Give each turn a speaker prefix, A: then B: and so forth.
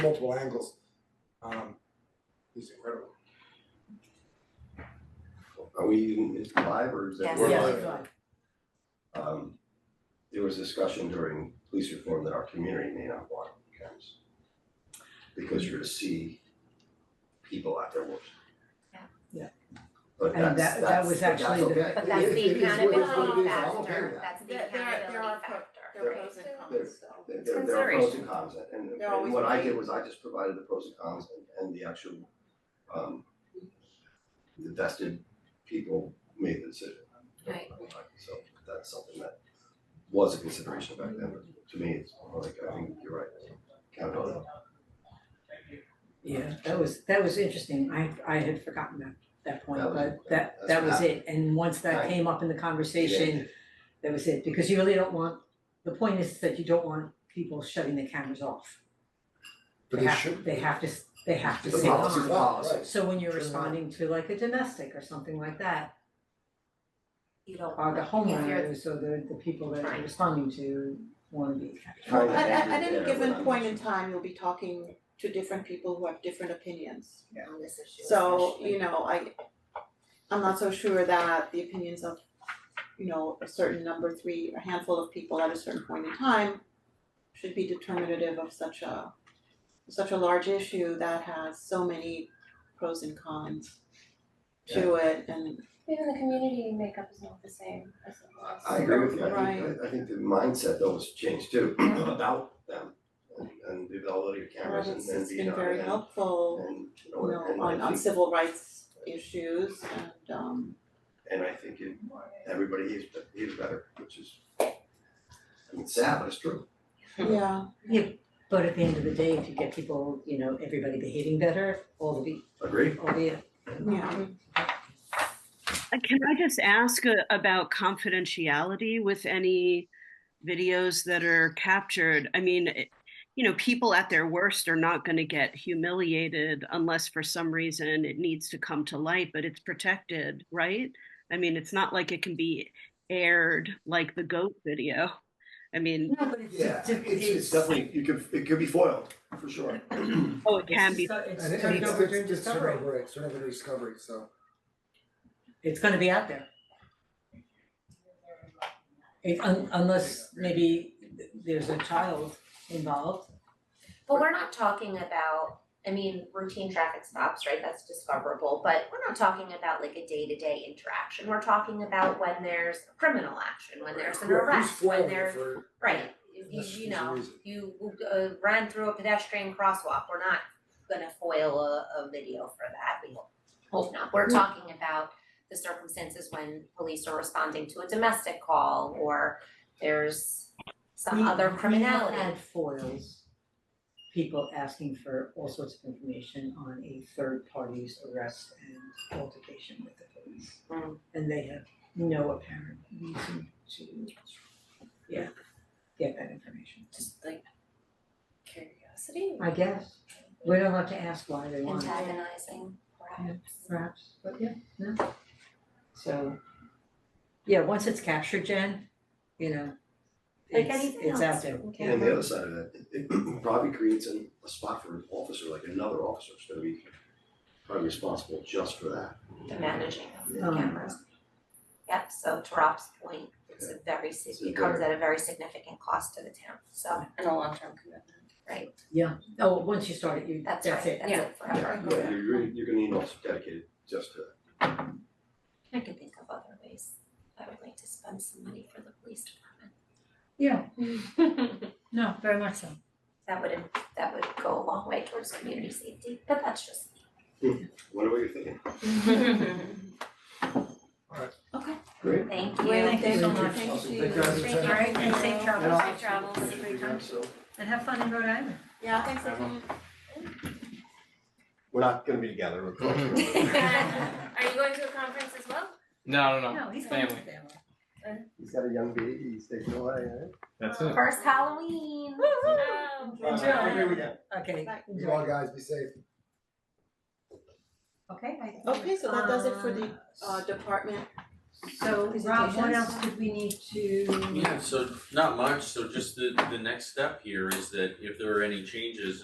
A: multiple angles. Um, he's incredible.
B: Are we, even- it's live or is that?
C: Yes.
B: we're
D: Yeah.
B: live? Um, there was discussion during police reform that our community may not want cameras. Because you're to see people at their worst.
C: Yeah.
D: Yeah.
B: But
D: And
B: that's,
D: that- that
B: that's,
D: was
B: but that's
D: actually the-
B: okay.
C: But that's
B: It-
C: the
B: it is what it is, what it
C: accountability
B: is, I'm okay
C: factor,
B: with that.
C: that's the
E: There- there are-
C: accountability
E: there are pro-
C: factor,
E: There are
C: right?
E: pros and
C: So-
E: cons, so.
B: There- There, there are pros
C: consideration.
B: and cons and,
E: There always
B: and what I
E: will be.
B: did was I just provided the pros and cons and, and the actual, um, the vested people made the decision.
C: Right.
B: So that's something that was a consideration back then, but to me, it's more like, I think you're right, count it all.
D: Yeah, that was, that was interesting, I I had forgotten that that point,
B: That was-
D: but that
B: that's
D: that
B: what
D: was it, and once that
B: Right.
D: came up in the conversation, that was it, because you really don't want, the point is that you don't want people shutting the cameras off.
A: But
D: They
A: they
D: have-
A: should.
D: They have to, s- they have to
B: The
D: stay
B: policy
D: on.
B: is policy.
A: Right.
D: So when you're
A: Turn it on.
D: responding to like a domestic or something like that,
C: You don't
D: or
C: want
D: the
C: it. If you're-
D: homeowners or the the people that
C: Right.
D: you're responding to wanna be captured.
B: Kind of
E: At at at
B: ended
E: any
B: there, but
E: given
B: I'm
E: point
B: not
E: in time, you'll be talking to different people who have different opinions.
C: on this issue
E: So,
C: especially.
E: you know, I I'm not so sure that the opinions of, you know, a certain number three, a handful of people at a certain point in time should be determinative of such a such a large issue that has so many pros and cons to it and
F: Even the community makeup is not the same as it
B: I
F: was.
B: I agree with you, I
E: Right.
B: think, I- I think the mindset though has changed too, about them and and the availability of cameras and
E: it's
B: and
E: it's
B: being
E: been
B: on
E: very
B: and-
E: helpful.
B: and, you know,
E: you know,
B: and I
E: on on
B: think-
E: civil rights issues and um
B: And I think it, everybody is, is better, which is, I mean, sad, but it's true.
E: yeah,
D: But at the end of the day, if you get people, you know, everybody behaving better, all the be-
B: Agree?
D: all the
E: yeah.
G: Uh, Can I just ask uh, about confidentiality with any videos that are captured? I mean, it- you know, people at their worst are not going to get humiliated unless for some reason it needs to come to light, but it's protected, right? I mean, it's not like it can be aired like the goat video. I mean,
D: No, but it's it's
B: definitely, you could, it could be foiled, for sure.
G: oh, it can be.
D: It's
A: And it-
D: gonna be
A: it's-
D: covered
A: it's-
D: during
A: it's sort of
D: discovery,
A: right, sort of a discovery, so.
D: it's gonna be out there. It un- unless maybe th- there's a child involved,
C: But we're not talking about, I mean, routine traffic stops, right, that's discoverable, but we're not talking about like a day-to-day interaction, we're talking about when there's criminal action, when there's an
A: Who- who's
C: arrest, when
A: foiling it
C: there's,
A: for-
C: right, you
A: That's-
C: you
A: there's a
C: know,
A: reason.
C: you uh ran through a pedestrian crosswalk, we're not gonna foil a a video for that, we hope not,
D: Mm-hmm.
C: we're talking about the circumstances when police are responding to a domestic call or there's
D: We-
C: some other criminality.
D: We have had foils, people asking for all sorts of information on a third party's arrest and altercation with the police.
C: Mm.
D: And they have no apparent reason to, yeah, get that information,
F: Just like curiosity.
D: I guess. We don't have to ask why they want it,
C: antagonizing, perhaps.
D: perhaps, but yeah, no. So, yeah, once it's captured, Jen, you know,
C: Like
D: it's
C: anything
D: it's out
C: else.
D: there.
B: And the other side of that, it it probably creates an, a spot for an officer, like another officer, is gonna be probably responsible just for that.
C: The managing of the
D: Um.
C: cameras. Yep, so to Rob's point, it's a very, sig-
B: It's a
C: it comes
B: very-
C: at a very significant cost to the town, so,
F: And a long-term commitment.
C: right,
D: Yeah, oh, once you start it, you,
C: that's
D: that's
C: right, that's
D: it,
C: it forever.
B: Yeah, yeah, you're, really- you're gonna need an officer dedicated just to that.
C: I can think of other ways I would like to spend some money for the police department.
D: Yeah, no, very much so.
C: That would, im- that would go a long way towards community safety, but that's just
B: What are you thinking?
C: me.
E: Okay.
B: Great.
C: Thank you.
E: Well, thank you so
A: Thank
E: much.
A: you.
E: Thank you.
A: Thank you guys for
C: Thank you.
A: checking.
D: Alright, and safe travels,
C: Safe travels, safe returns.
B: So,
D: and have fun in Rhode Island.
E: Yeah, thanks for coming.
B: we're not gonna be together, we're going to-
F: Are you going to a conference as well?
H: No, no, no.
D: No, he's
H: family.
D: family.
B: He's got a young baby, he's taking away, eh?
H: That's it.
C: First Halloween.
F: Oh.
A: All right, have a great weekend.
D: Okay.
E: Right.
A: You all guys be safe.
D: Okay, I think.
E: Okay, so that does it for the uh department.
D: So Rob, what
E: presentations.
D: else did we need to?
I: Yeah, so not much, so just the the next step here is that if there are any changes